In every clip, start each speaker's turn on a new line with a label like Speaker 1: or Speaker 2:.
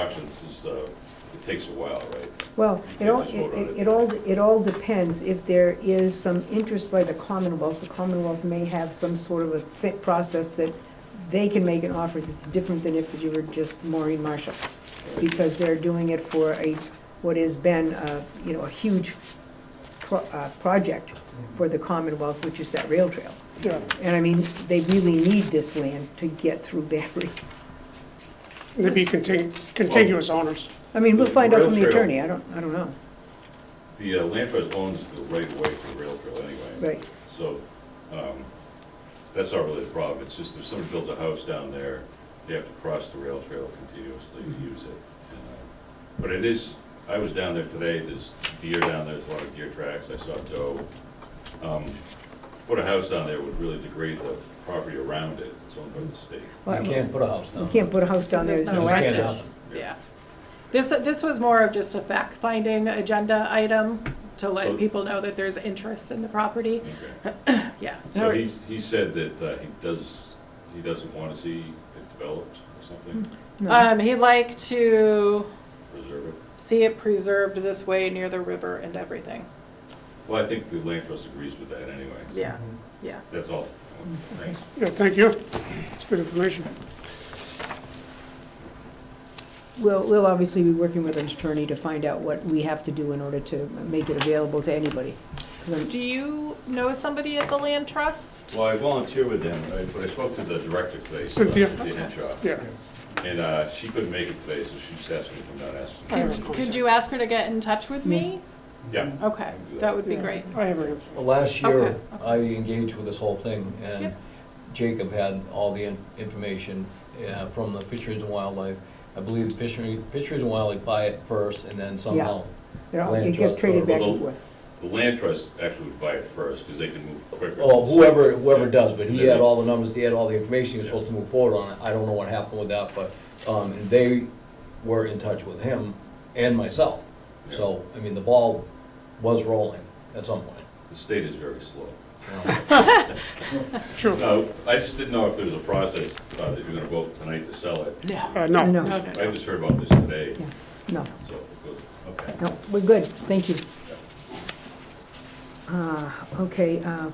Speaker 1: options is, uh, it takes a while, right?
Speaker 2: Well, it all,
Speaker 1: You can't just vote on
Speaker 2: it
Speaker 1: it.
Speaker 2: it all, it all depends if there is some interest by the Commonwealth. The Commonwealth may have some sort of a fit process that they can make an offer that's different than if you were just Maureen Marshall. Because they're doing it for a, what has been, uh, you know, a huge pro- uh, project for the Commonwealth, which is that rail trail.
Speaker 3: Yeah,
Speaker 2: And I mean, they really need this land to get through Barry.
Speaker 3: they'd be contig- contiguous owners.
Speaker 2: I mean, we'll find out from the
Speaker 1: Rail trail.
Speaker 2: attorney, I don't, I don't know,
Speaker 1: The uh, land trust owns the right of way for the rail trail anyway.
Speaker 2: right.
Speaker 1: So, um, that's not really the problem, it's just if somebody builds a house down there, they have to cross the rail trail continuously to use it. And, uh, But it is, I was down there today, there's deer down there, there's a lot of deer tracks, I saw doe. Um, Put a house down there would really degrade the property around it, it's owned by the state.
Speaker 2: Well,
Speaker 4: You can't put a house down.
Speaker 2: You can't put a house down there, there's
Speaker 4: It
Speaker 2: no
Speaker 4: just can't
Speaker 2: access.
Speaker 4: happen.
Speaker 5: Yeah. This, this was more of just a fact-finding agenda item to
Speaker 1: So-
Speaker 5: let people know that there's interest in the property.
Speaker 1: Okay.
Speaker 5: Yeah.
Speaker 1: So he, he said that uh, he does, he doesn't want to see it developed or something,
Speaker 2: No.
Speaker 5: Um, he'd like to
Speaker 1: preserve it.
Speaker 5: see it preserved this way near the river and everything.
Speaker 1: Well, I think the land trust agrees with that anyway. so
Speaker 5: Yeah, yeah.
Speaker 1: That's all. Thanks.
Speaker 3: Yeah, thank you. It's good information.
Speaker 2: We'll, we'll obviously be working with an attorney to find out what we have to do in order to make it available to anybody. 'Cause I'm-
Speaker 5: Do you know somebody at the land trust?
Speaker 1: Well, I volunteer with them, right, but I spoke to the director today. uh,
Speaker 3: Cynthia.
Speaker 1: Cynthia Henshaw,
Speaker 3: Yeah.
Speaker 1: And uh, she couldn't make it today, so she just asked me to come down and ask.
Speaker 3: I have
Speaker 1: them.
Speaker 3: her
Speaker 5: Could
Speaker 3: contact.
Speaker 5: you ask her to get in touch with me?
Speaker 1: Yeah.
Speaker 5: Okay, that would be great.
Speaker 3: I have her info.
Speaker 4: Well, last
Speaker 5: Okay,
Speaker 4: year,
Speaker 5: okay.
Speaker 4: I engaged with this whole thing, and
Speaker 5: Yep.
Speaker 4: Jacob had all the in- information uh, from the Fisheries and Wildlife. I believe the Fishery- Fisheries and Wildlife buy it first, and then somehow,
Speaker 2: you know, It
Speaker 4: Land
Speaker 2: gets
Speaker 4: trust
Speaker 2: traded
Speaker 4: or-
Speaker 2: back and forth.
Speaker 1: The land trust actually would buy it first, because they can move quicker.
Speaker 4: oh, whoever, whoever does, but he
Speaker 1: Yeah.
Speaker 4: had all the numbers, he had all the information, he was supposed to move forward on it. I don't know what happened with that, but um, and they were in touch with him and myself. So, I mean, the ball was rolling at some point.
Speaker 1: The state is very slow.
Speaker 3: True.
Speaker 1: No, I just didn't know if there was a process uh, that you're going to vote tonight to sell it.
Speaker 5: No.
Speaker 3: Uh,
Speaker 2: No,
Speaker 3: no.
Speaker 5: No,
Speaker 2: no,
Speaker 5: no,
Speaker 1: I
Speaker 5: no.
Speaker 1: just heard about this today,
Speaker 2: no,
Speaker 1: so, it goes- okay.
Speaker 2: no, we're good, thank you. Uh, Okay, uh,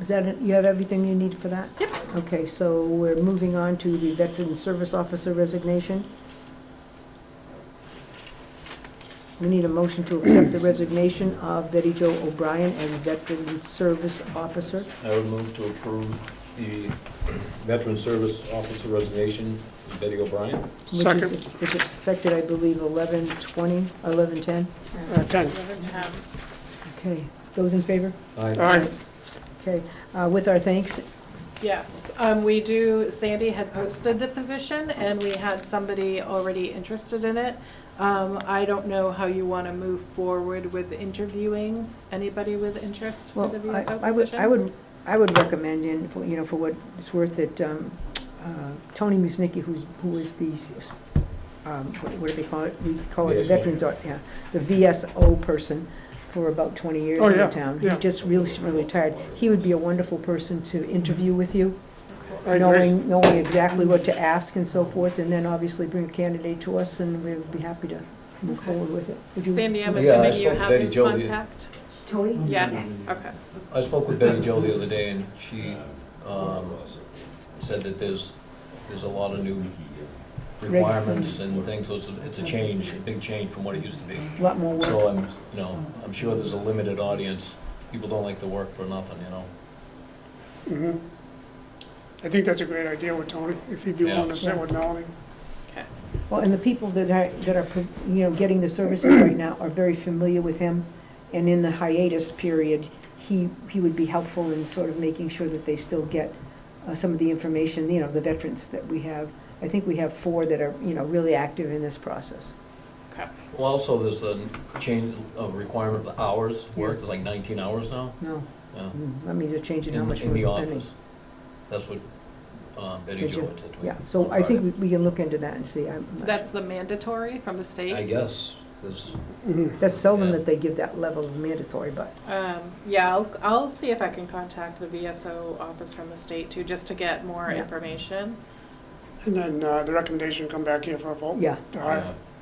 Speaker 2: is that, it? you have everything you need for that?
Speaker 5: Yep.
Speaker 2: Okay, so we're moving on to the Veteran Service Officer resignation. We need a motion to accept the resignation of Betty Jo O'Brien as Veteran Service Officer.
Speaker 4: I would move to approve the Veteran Service Officer resignation, Betty O'Brien.
Speaker 2: which is-
Speaker 3: Second.
Speaker 2: Which is affected, I believe, 1120, 1110.
Speaker 3: Uh, Ten.
Speaker 5: Um,
Speaker 2: Okay, those in favor?
Speaker 3: All right.
Speaker 2: Okay, uh, with our thanks,
Speaker 5: Yes, um, we do, Sandy had posted the position and we had somebody already interested in it. Um, I don't know how you want to move forward with interviewing anybody with interest for
Speaker 2: Well,
Speaker 5: the
Speaker 2: I-
Speaker 5: VSO
Speaker 2: I would, I
Speaker 5: position.
Speaker 2: would, I would recommend, and, for- you know, for what it's worth, that um, uh, Tony Musnicki, who's, who is the, um, what what do they call it? We call it the
Speaker 4: VSO.
Speaker 2: Veterans, Art- yeah, the VSO person for about 20 years
Speaker 3: Oh,
Speaker 2: in the
Speaker 3: yeah,
Speaker 2: town. He's
Speaker 3: yeah.
Speaker 2: just really, really tired. He would be a wonderful person to interview with you,
Speaker 3: I agree.
Speaker 2: knowing, knowing exactly what to ask and so forth, and then obviously bring a candidate to us, and we would be happy to move
Speaker 5: Okay.
Speaker 2: forward with it. Would you-
Speaker 5: Sandy,
Speaker 4: Yeah,
Speaker 5: I'm
Speaker 4: I
Speaker 5: assuming you
Speaker 4: spoke to
Speaker 5: have
Speaker 4: Betty
Speaker 5: his
Speaker 4: Jo the-
Speaker 5: contact?
Speaker 2: Tony?
Speaker 5: Yes, okay.
Speaker 4: I spoke with Betty Joe the other day, and she Hmm. um,
Speaker 1: Um,
Speaker 4: said that there's, there's a lot of new requirements and things, so it's, a- it's a change, a big change from what it used to be.
Speaker 2: A lot more work.
Speaker 4: So I'm, you know, I'm sure there's a limited audience. People don't like to work for nothing, you know?
Speaker 3: Mhm. I think that's a great idea with Tony, if he'd be willing to sit with Melanie.
Speaker 5: Okay.
Speaker 2: Well, and the people that are, that are, you know, getting the services right now are very familiar with him, and in the hiatus period, he, he would be helpful in sort of making sure that they still get uh, some of the information, you know, the veterans that we have. I think we have four that are, you know, really active in this process.
Speaker 4: Well, also, there's a change of requirement of hours worked, it's like 19 hours now.
Speaker 2: No,
Speaker 4: Yeah.
Speaker 2: mm, that means they're changing how
Speaker 4: In,
Speaker 2: much
Speaker 4: in
Speaker 2: we're
Speaker 4: the
Speaker 2: spending.
Speaker 4: office. That's what um, Betty
Speaker 2: Did
Speaker 4: Jo
Speaker 2: you-
Speaker 4: had said to me.
Speaker 2: Yeah, so
Speaker 4: on
Speaker 2: I think
Speaker 4: Friday.
Speaker 2: we we can look into that and see. I'm not
Speaker 5: That's the mandatory from the
Speaker 4: I
Speaker 5: state?
Speaker 4: guess, 'cause-
Speaker 3: Mhm.
Speaker 2: sure. That's seldom
Speaker 4: yeah.
Speaker 2: that they give that level of mandatory, but,
Speaker 5: Um, yeah, I'll, I'll see if I can contact the VSO office from the state too, just to get more
Speaker 2: Yeah.
Speaker 5: information.
Speaker 3: and then uh, the recommendation come back here for a vote
Speaker 2: yeah.
Speaker 3: to hire.